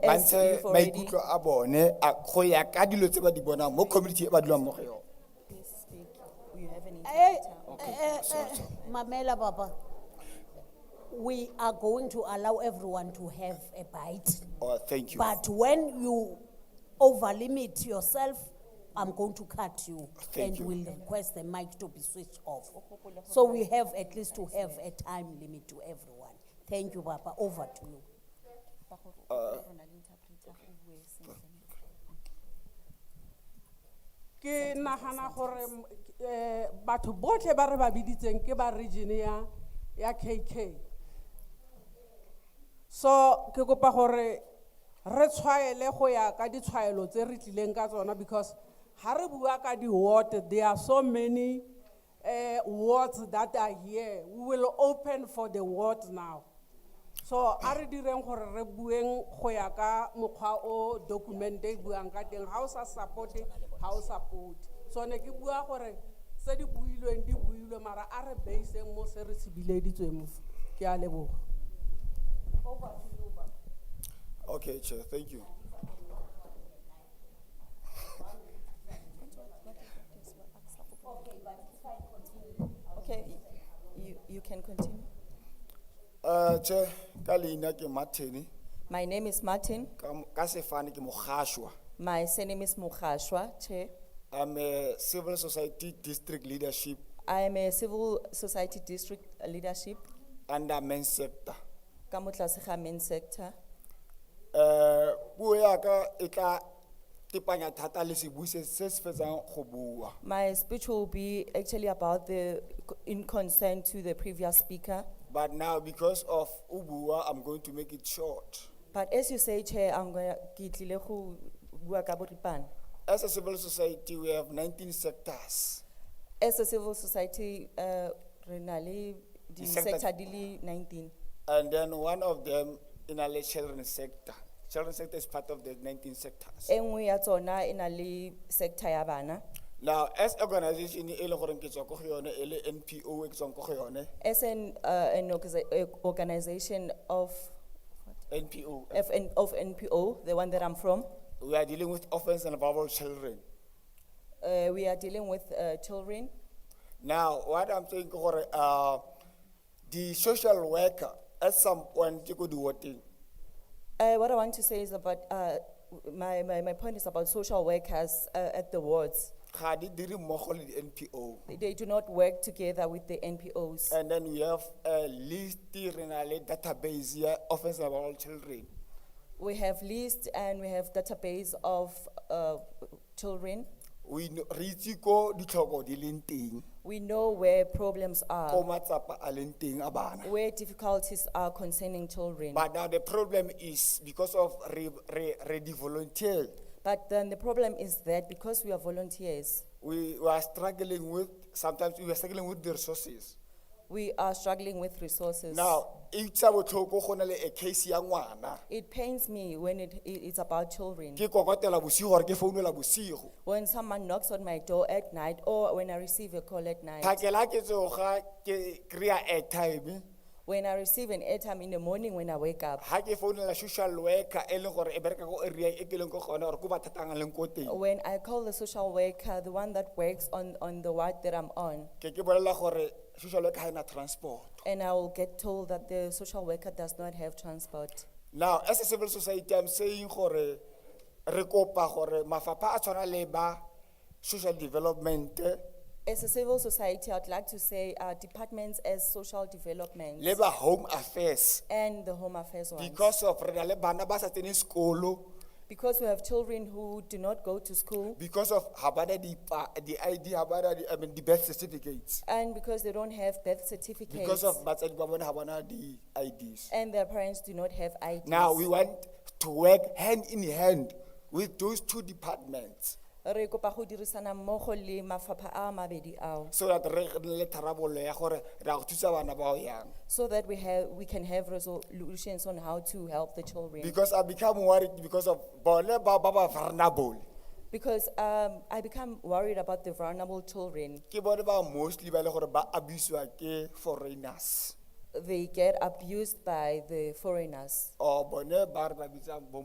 ba as ntshe you've already. maikutlo a bone a- go ya ka dilo tse ba di bonang mo community e ba dulang mo go yone You have an Eh, interpreter. Oh, eh, eh, eh, Mamela Baba, we are going to allow everyone to have a bite. oh thank you But when you overlimit yourself, I'm going to cut you. Thank you. And will request the mic to be switched off. So we have at least to have a time limit to everyone. Thank you, Baba. Over to you. Uh, ke nagana gore mm, eh, batho botlhe ba re ba biditseng ke ba region ya ya kk so ke kopa gore re tshwaele go ya ka ditshwaelo tse re tlileng ka tsona because ga re bua ka di-ward there are so many uh, wards that are here we will open for the ward now so a re direng gore re bueng go ya ka mokgwa o documente e buang ka teng ga o sa supporte ga o supporte so ne ke bua gore tse di builweng di builwe mara a re baseng mo se re se bileditsweng mo ke a leboga okay chair thank you Okay, you, you can continue. uh chair ka leina ke martin My name is Martin. ka mo- ka sefane ke mogashwa My surname is Mukashwa, Chair. i'm a civil society district leadership I am a civil society district leadership, under men sector Kamutlasiha main sector. um puo yaka e tla tepanya thata le sebui se se se fetsang go bua My speech will be actually about the, in concern to the previous speaker. but now because of o bua i'm going to make it short But as you say, Chair, I'm going to, bua ka boripana. As a civil society, we have 19 sectors. As a civil society, uh, renali, the Di-sector- sector dili nineteen. And then one of them in our children's sector. Children's sector is part of the 19 sectors. Engwe E ya tsona inali sector ya bana. Now, as organization, e leng gore ke tswa ko go yone, e le NPO, e ke tswang ko go yone, As an, uh, an organisa- eh, organization of, NPO, of N- of NPO, the one that I'm from, we are dealing with orphans and vulnerable children. uh, we are dealing with, uh, children. Now, what I'm saying, ke gore, uh, the social worker, at some point, you could do what thing. Uh, what I want to say is about, uh, my, my, my point is about social workers, uh, at the wards. Ga di dire mmogo le di NPO. They- They do not work together with the NPOs. And then we have a list, re na le database ya orphans and vulnerable children. We have list and we have database of, uh, children. we kn- re itse ko ditlhoko di leng teng We know where problems ko are, matsapa a leng teng a bana where difficulties are concerning children. but now the problem is because of re re re di volunteer But then the problem is that because we are volunteers, we, we are struggling with sometimes we are struggling with the resources we are struggling with resources. now e tsa botlhoko go na le a case ya ngwana It pains me when it, it, it's about children. ke kokotela bosigo gore ke founela bosigo When someone knocks on my door at night or when I receive a call at night, phakela ke tsoga ke kry-a airtime when I receive an airtime in the morning when I wake up, ga ke founela social worker e leng gore e bereka ko area e ke leng ko gona gore ko bathatang a leng ko teng when I call the social worker, the one that works on, on the ward that I'm on, ke ke bolelela gore social worker ga e na transport and I will get told that the social worker does not have transport. Now, as a civil society, I'm saying gore, re kopa gore mafapha a tshwana le ba social development, eh, As a civil society, I'd like to say our departments as social development le ba home affairs. and the home affairs ones. Because of re na le bana ba sa tseneng sekolo, Because we have children who do not go to school because of habana di pa, di ID, habana di, I mean, di birth certificates. and because they don't have birth certificates Because of batsadi ba bona habana di IDs. and their parents do not have IDs. Now, we want to work hand in hand with those two departments Re kopa go dirisana mmogo le mafapha a mabedi ao, so that re re na le tharabollo ya gore re a go thusa bana bao yang. so that we have, we can have resolutions on how to help the children. Because I become worried because of bone ba ba ba vulnerable. Because um, I become worried about the vulnerable children. Ke bone ba mostly ba le gore ba abuse-wa ke foreigners. They get abused by the foreigners. Or bone ba re ba bitsang bo